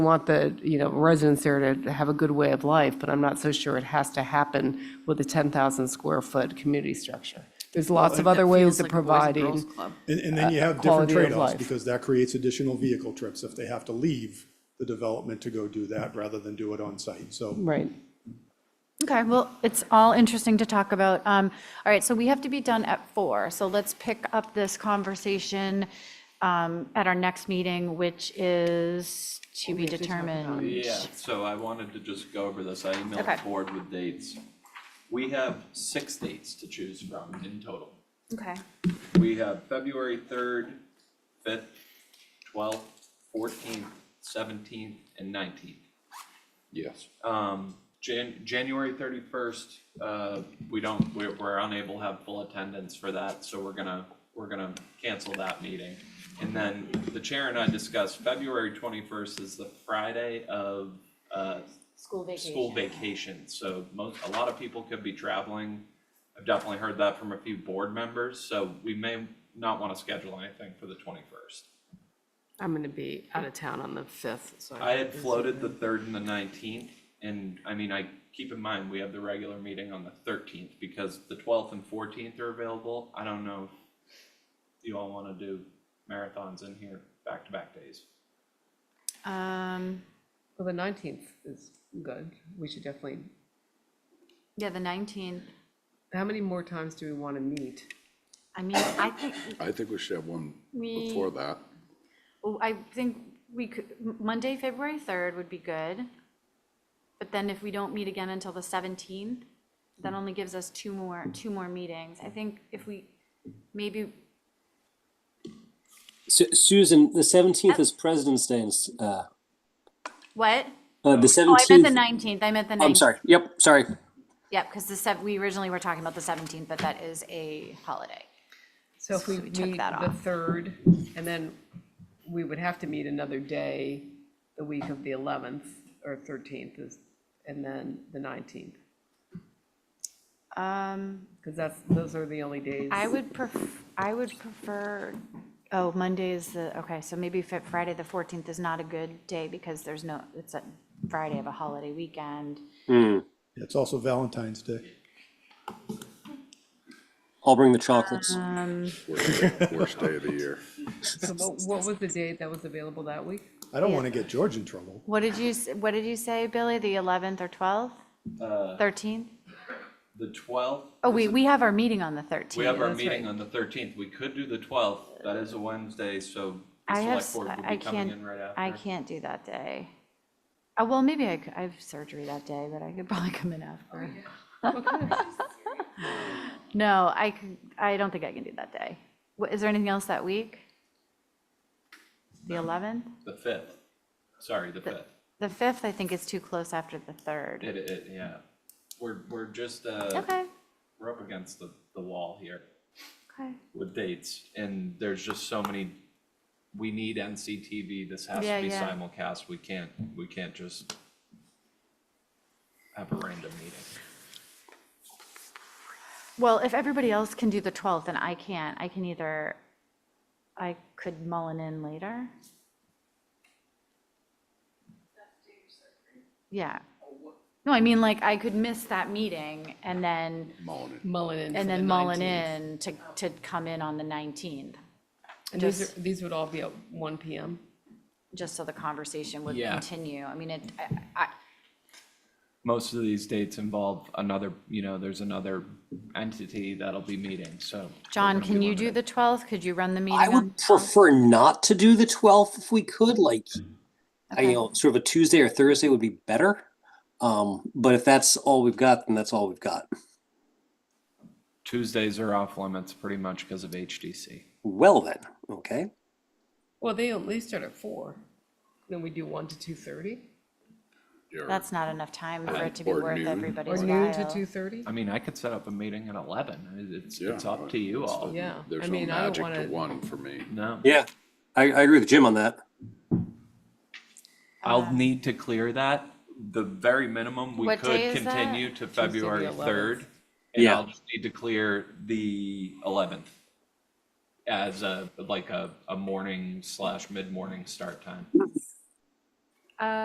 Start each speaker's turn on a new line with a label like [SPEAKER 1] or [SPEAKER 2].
[SPEAKER 1] want the, you know, residents there to have a good way of life, but I'm not so sure it has to happen with a 10,000 square foot community structure. There's lots of other ways of providing.
[SPEAKER 2] And, and then you have different
[SPEAKER 1] quality of
[SPEAKER 2] trade-offs,
[SPEAKER 1] life.
[SPEAKER 2] because that creates additional vehicle trips if they have to leave the development to go do that, rather than do it on-site, so.
[SPEAKER 1] Right.
[SPEAKER 3] Okay, well, it's all interesting to talk about. Um, All right, so we have to be done at four, so let's pick up this conversation um, at our next meeting, which is to be determined.
[SPEAKER 4] Yeah, so I wanted to just go over this, I
[SPEAKER 3] Um, Okay.
[SPEAKER 4] emailed the board with dates. We have six dates to choose from in total.
[SPEAKER 3] Okay,
[SPEAKER 4] We have February third, fifth, twelfth, fourteenth, seventeenth, and nineteenth.
[SPEAKER 5] Yes.
[SPEAKER 4] Um, Jan- January thirty-first, uh, we don't, we're, we're unable to have full attendance for that, so we're gonna, we're gonna cancel that meeting. And then the chair and I discussed February twenty-first is the Friday of, uh,
[SPEAKER 3] school vacation.
[SPEAKER 4] school vacation, so most, a lot of people could be traveling. I've definitely heard that from a few board members, so we may not wanna schedule anything for the twenty-first.
[SPEAKER 6] I'm going to be out of town on the 5th, so.
[SPEAKER 4] I had floated the third and the nineteenth, and I mean, I, keep in mind, we have the regular meeting on the thirteenth, because the twelfth and fourteenth are available, I don't know if you all wanna do marathons in here, back-to-back days.
[SPEAKER 3] Um,
[SPEAKER 1] Well, the 19th is good. We should definitely,
[SPEAKER 3] Yeah, the 19th.
[SPEAKER 1] how many more times do we want to meet?
[SPEAKER 3] I mean, I think,
[SPEAKER 5] I think we should have one
[SPEAKER 3] We-
[SPEAKER 5] before that.
[SPEAKER 3] oh, I think we could, Monday, February 3rd would be good. But then if we don't meet again until the 17th, that only gives us two more, two more meetings. I think if we, maybe
[SPEAKER 7] Su- Susan, the seventeenth is President's Day. and s- Uh,
[SPEAKER 3] What?
[SPEAKER 7] uh, the
[SPEAKER 3] Oh, I meant the
[SPEAKER 7] seventeenth.
[SPEAKER 3] nineteenth, I meant the 19th.
[SPEAKER 7] Oh, I'm sorry. Yep, sorry.
[SPEAKER 3] Yep, because the sev, we originally were talking about the seventeenth, but that is a holiday.
[SPEAKER 1] So if we
[SPEAKER 3] So we took
[SPEAKER 1] meet
[SPEAKER 3] that
[SPEAKER 1] the
[SPEAKER 3] off.
[SPEAKER 1] third, and then we would have to meet another day, the week of the eleventh or thirteenth is, and then the nineteenth,
[SPEAKER 3] Um,
[SPEAKER 1] because that's, those are the only days.
[SPEAKER 3] I would pref, I would prefer, oh, Monday is the, okay, so maybe Fri- Friday, the fourteenth is not a good day because there's no, it's a Friday of a holiday weekend.
[SPEAKER 2] It's also Valentine's Day.
[SPEAKER 7] I'll bring the chocolates.
[SPEAKER 3] Uh,
[SPEAKER 5] Worst worst day of the year.
[SPEAKER 1] So what, what was the date that was available that week?
[SPEAKER 2] I don't wanna get George in trouble.
[SPEAKER 3] What did you, s- what did you say, Billy, the eleventh or twelfth,
[SPEAKER 4] Uh,
[SPEAKER 3] thirteenth?
[SPEAKER 4] the twelfth,
[SPEAKER 3] Oh, we, we have our meeting on the thirteenth.
[SPEAKER 4] we have our
[SPEAKER 1] that's
[SPEAKER 4] meeting
[SPEAKER 1] right.
[SPEAKER 4] on the thirteenth, we could do the twelfth, that is a Wednesday, so the
[SPEAKER 3] I have,
[SPEAKER 4] select
[SPEAKER 3] s-
[SPEAKER 4] board would
[SPEAKER 3] I
[SPEAKER 4] be coming
[SPEAKER 3] can't,
[SPEAKER 4] in right after.
[SPEAKER 3] I can't do that day. Uh, well, maybe I, c- I have surgery that day, but I could probably come in after. No, I, c- I don't think I can do that day. Wha- Is there anything else that week? The 11th?
[SPEAKER 4] The fifth, sorry, the fifth,
[SPEAKER 3] The 5th, I think is too close after the 3rd.
[SPEAKER 4] it, it, yeah, we're, we're just, uh,
[SPEAKER 3] Okay,
[SPEAKER 4] we're up against the, the wall here.
[SPEAKER 3] okay.
[SPEAKER 4] with dates, and there's just so many, we need NCTV, this has
[SPEAKER 3] Yeah,
[SPEAKER 4] to be
[SPEAKER 3] yeah.
[SPEAKER 4] simulcast, we can't, we can't just have a random meeting.
[SPEAKER 3] Well, if everybody else can do the 12th and I can't, I can either, I could mullen in later. Yeah. No, I mean, like, I could miss that meeting and then,
[SPEAKER 5] Mullen it.
[SPEAKER 1] Mullen in.
[SPEAKER 3] and then mullen in to, to come in on the 19th,
[SPEAKER 1] And these are, these would all be at one PM?
[SPEAKER 3] just so the conversation would
[SPEAKER 4] Yeah.
[SPEAKER 3] continue. I mean, it, I, I-
[SPEAKER 4] Most of these dates involve another, you know, there's another entity that'll be meeting, so. we're
[SPEAKER 3] John,
[SPEAKER 4] gonna
[SPEAKER 3] can
[SPEAKER 4] be
[SPEAKER 3] you do
[SPEAKER 4] limited.
[SPEAKER 3] the 12th? Could you run the meeting
[SPEAKER 7] I
[SPEAKER 3] on?
[SPEAKER 7] would prefer not to do the twelfth if we could. Like, I,
[SPEAKER 3] Okay.
[SPEAKER 7] you know, sort of a Tuesday or Thursday would be better. Um, but if that's all we've got, then that's all we've got.
[SPEAKER 4] Tuesdays are off limits pretty much because of HDC.
[SPEAKER 7] Well then, okay.
[SPEAKER 1] Well, they at least start at four. Then we do one to two thirty,
[SPEAKER 5] You're-
[SPEAKER 3] That's not enough time for it to be
[SPEAKER 5] Or
[SPEAKER 3] worth
[SPEAKER 5] noon.
[SPEAKER 1] or
[SPEAKER 3] everybody's while.
[SPEAKER 1] noon to two thirty?
[SPEAKER 4] I mean, I could set up a meeting at eleven, it's,
[SPEAKER 5] Yeah,
[SPEAKER 4] it's up to you
[SPEAKER 5] it's
[SPEAKER 4] all.
[SPEAKER 5] fine.
[SPEAKER 1] Yeah, I
[SPEAKER 5] There's no
[SPEAKER 1] mean, I don't
[SPEAKER 5] magic
[SPEAKER 1] wanna.
[SPEAKER 5] to one for me.
[SPEAKER 4] No,
[SPEAKER 7] Yeah, I, I agree with Jim on that.
[SPEAKER 4] I'll need to clear that, the very minimum, we
[SPEAKER 3] Um, What day
[SPEAKER 4] could
[SPEAKER 3] is that?
[SPEAKER 4] continue to
[SPEAKER 1] the
[SPEAKER 4] February
[SPEAKER 1] 11th.
[SPEAKER 4] third. And
[SPEAKER 7] Yeah.
[SPEAKER 4] I'll just need to clear the eleventh as a, like a, a morning slash mid-morning start time.